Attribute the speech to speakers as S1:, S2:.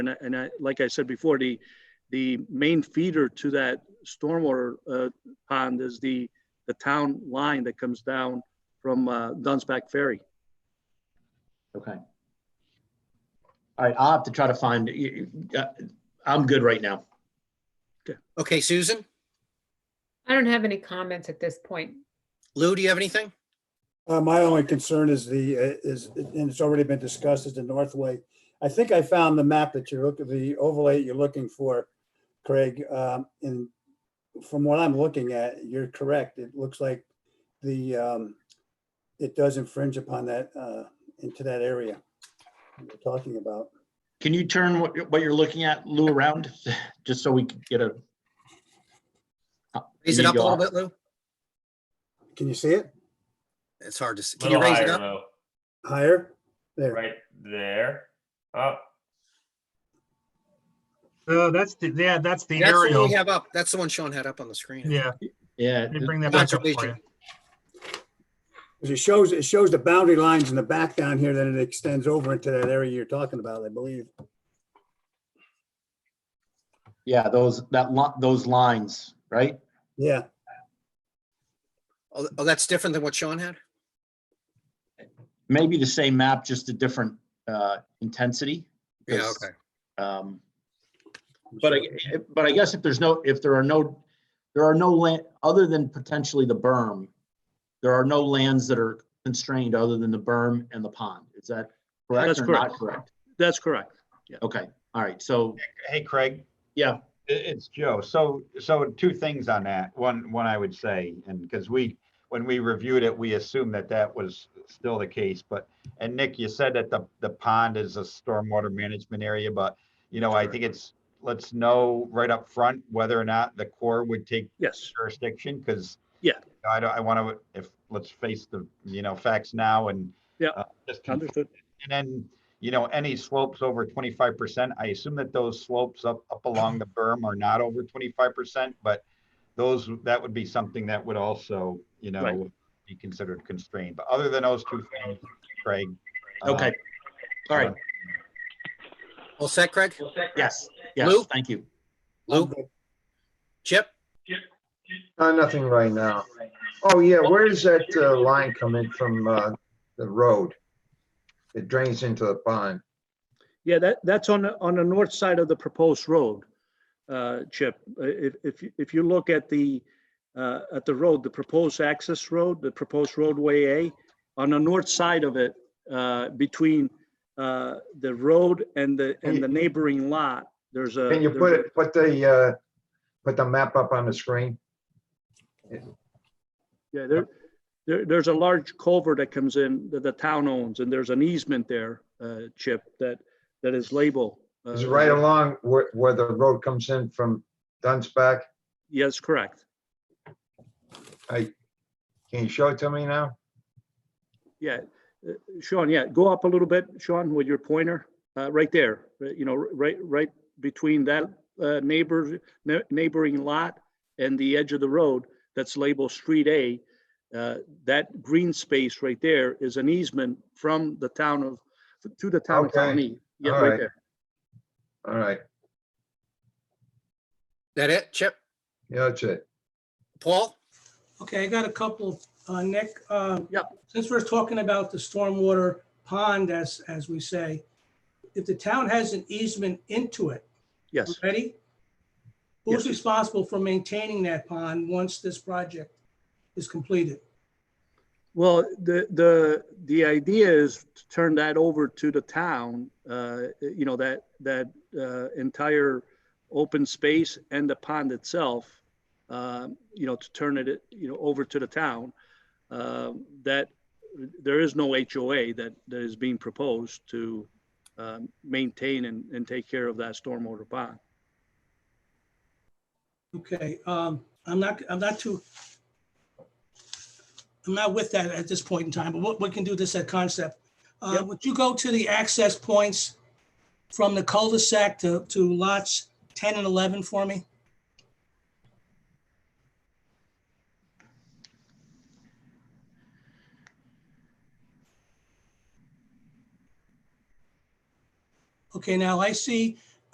S1: And I, and I, like I said before, the, the main feeder to that stormwater uh, pond is the, the town line that comes down from uh, Dunsback Ferry.
S2: Okay. All right, I'll have to try to find, y- y- uh, I'm good right now.
S3: Okay, Susan?
S4: I don't have any comments at this point.
S3: Lou, do you have anything?
S5: Uh, my only concern is the, uh, is, and it's already been discussed, is the Northway. I think I found the map that you're looking, the overlay you're looking for, Craig, um, and from what I'm looking at, you're correct. It looks like the, um, it does infringe upon that, uh, into that area we're talking about.
S2: Can you turn what, you're- what you're looking at, Lou, around, just so we can get a,
S3: Raise it
S2: You
S3: up a little
S2: go.
S3: bit, Lou.
S5: Can you see it?
S3: It's hard to, see. can you
S6: Little
S3: raise
S6: higher
S3: it up?
S6: though,
S5: Higher? There,
S6: right there. Up.
S7: Oh, that's the, yeah, that's the
S3: That's the one
S7: aerial.
S3: we have up. That's the one Sean had up on the screen.
S7: Yeah,
S2: yeah,
S7: let me bring that back up for
S3: Conservation.
S7: you.
S5: 'Cause it shows, it shows the boundary lines in the back down here, then it extends over into that area you're talking about, I believe.
S2: yeah, those, that lot, those lines, right?
S5: Yeah,
S3: Oh, oh, that's different than what Sean had?
S2: Maybe the same map, just a different, uh, intensity.
S3: Yeah,
S2: because,
S3: okay.
S2: Um, But I, but I guess if there's no, if there are no, there are no land, other than potentially the berm, there are no lands that are constrained other than the berm and the pond. Is that correct
S1: That's
S2: or not
S1: correct.
S2: correct?
S1: That's correct.
S2: Okay, all right, so,
S8: Hey, Craig,
S2: yeah,
S8: i- it's Joe. So, so two things on that. One, one I would say, and because we, when we reviewed it, we assumed that that was still the case, but, and Nick, you said that the, the pond is a stormwater management area, but, you know, I think it's, let's know right up front whether or not the Corps would take
S1: Yes,
S8: jurisdiction, because.
S1: Yeah.
S8: I don't, I want to, if, let's face the, you know, facts now and.
S1: Yeah.
S8: uh, Just confirm
S1: understood.
S8: and then, you know, any slopes over twenty-five percent, I assume that those slopes up, up along the berm are not over twenty-five percent, but those, that would be something that would also, you
S1: Right.
S8: know, be considered constrained. But other than those two things, Craig. uh,
S2: okay, all right,
S3: All set, Craig?
S2: yes,
S3: Lou?
S2: yes, thank you.
S5: I'm
S3: Lou?
S5: good.
S3: Chip?
S9: Uh, nothing right now. Oh, yeah, where does that uh, line come in from uh, the road? It drains into the pond.
S1: Yeah, that, that's on the, on the north side of the proposed road, uh, Chip. Uh, If, if, you- if you look at the, uh, at the road, the proposed access road, the proposed roadway A, on the north side of it, uh, between uh, the road and the, and the neighboring lot, there's a.
S9: Can you put it, put the, uh, put the map up on the screen?
S1: Yeah, there, there, there's a large culvert that comes in that the town owns, and there's an easement there, uh, Chip, that, that is labeled. uh,
S9: It's right along where, where the road comes in from Dunsback.
S1: Yes, correct.
S9: I, can you show it to me now?
S1: Yeah, Uh, Sean, yeah, go up a little bit, Sean, with your pointer, uh, right there, uh, you know, right, right between that, uh, neighbor, ne- neighboring lot and the edge of the road that's labeled Street A. Uh, that green space right there is an easement from the town of, to the town of
S9: Okay,
S1: Tawny. Yeah,
S9: all
S1: right
S9: right.
S1: there.
S9: All right,
S3: That it? Chip?
S9: yeah, that's it.
S3: Paul?
S10: Okay, I got a couple, uh, Nick. uh,
S1: Yep.
S10: Since we're talking about the stormwater pond, as, as we say, if the town has an easement into it,
S1: Yes,
S10: ready? Who's
S1: Yes.
S10: responsible for maintaining that pond once this project is completed?
S1: well, the, the, the idea is to turn that over to the town, uh, you know, that, that, uh, entire open space and the pond itself, um, you know, to turn it, you know, over to the town. Um, that, there is no HOA that, that is being proposed to, um, maintain and, and take care of that stormwater pond.
S10: Okay, um, I'm not, I'm not too, I'm not with that at this point in time, but what, we can do this at concept. Uh,
S1: Yep.
S10: would you go to the access points from the cul-de-sac to, to lots ten and eleven for me? Okay, now I see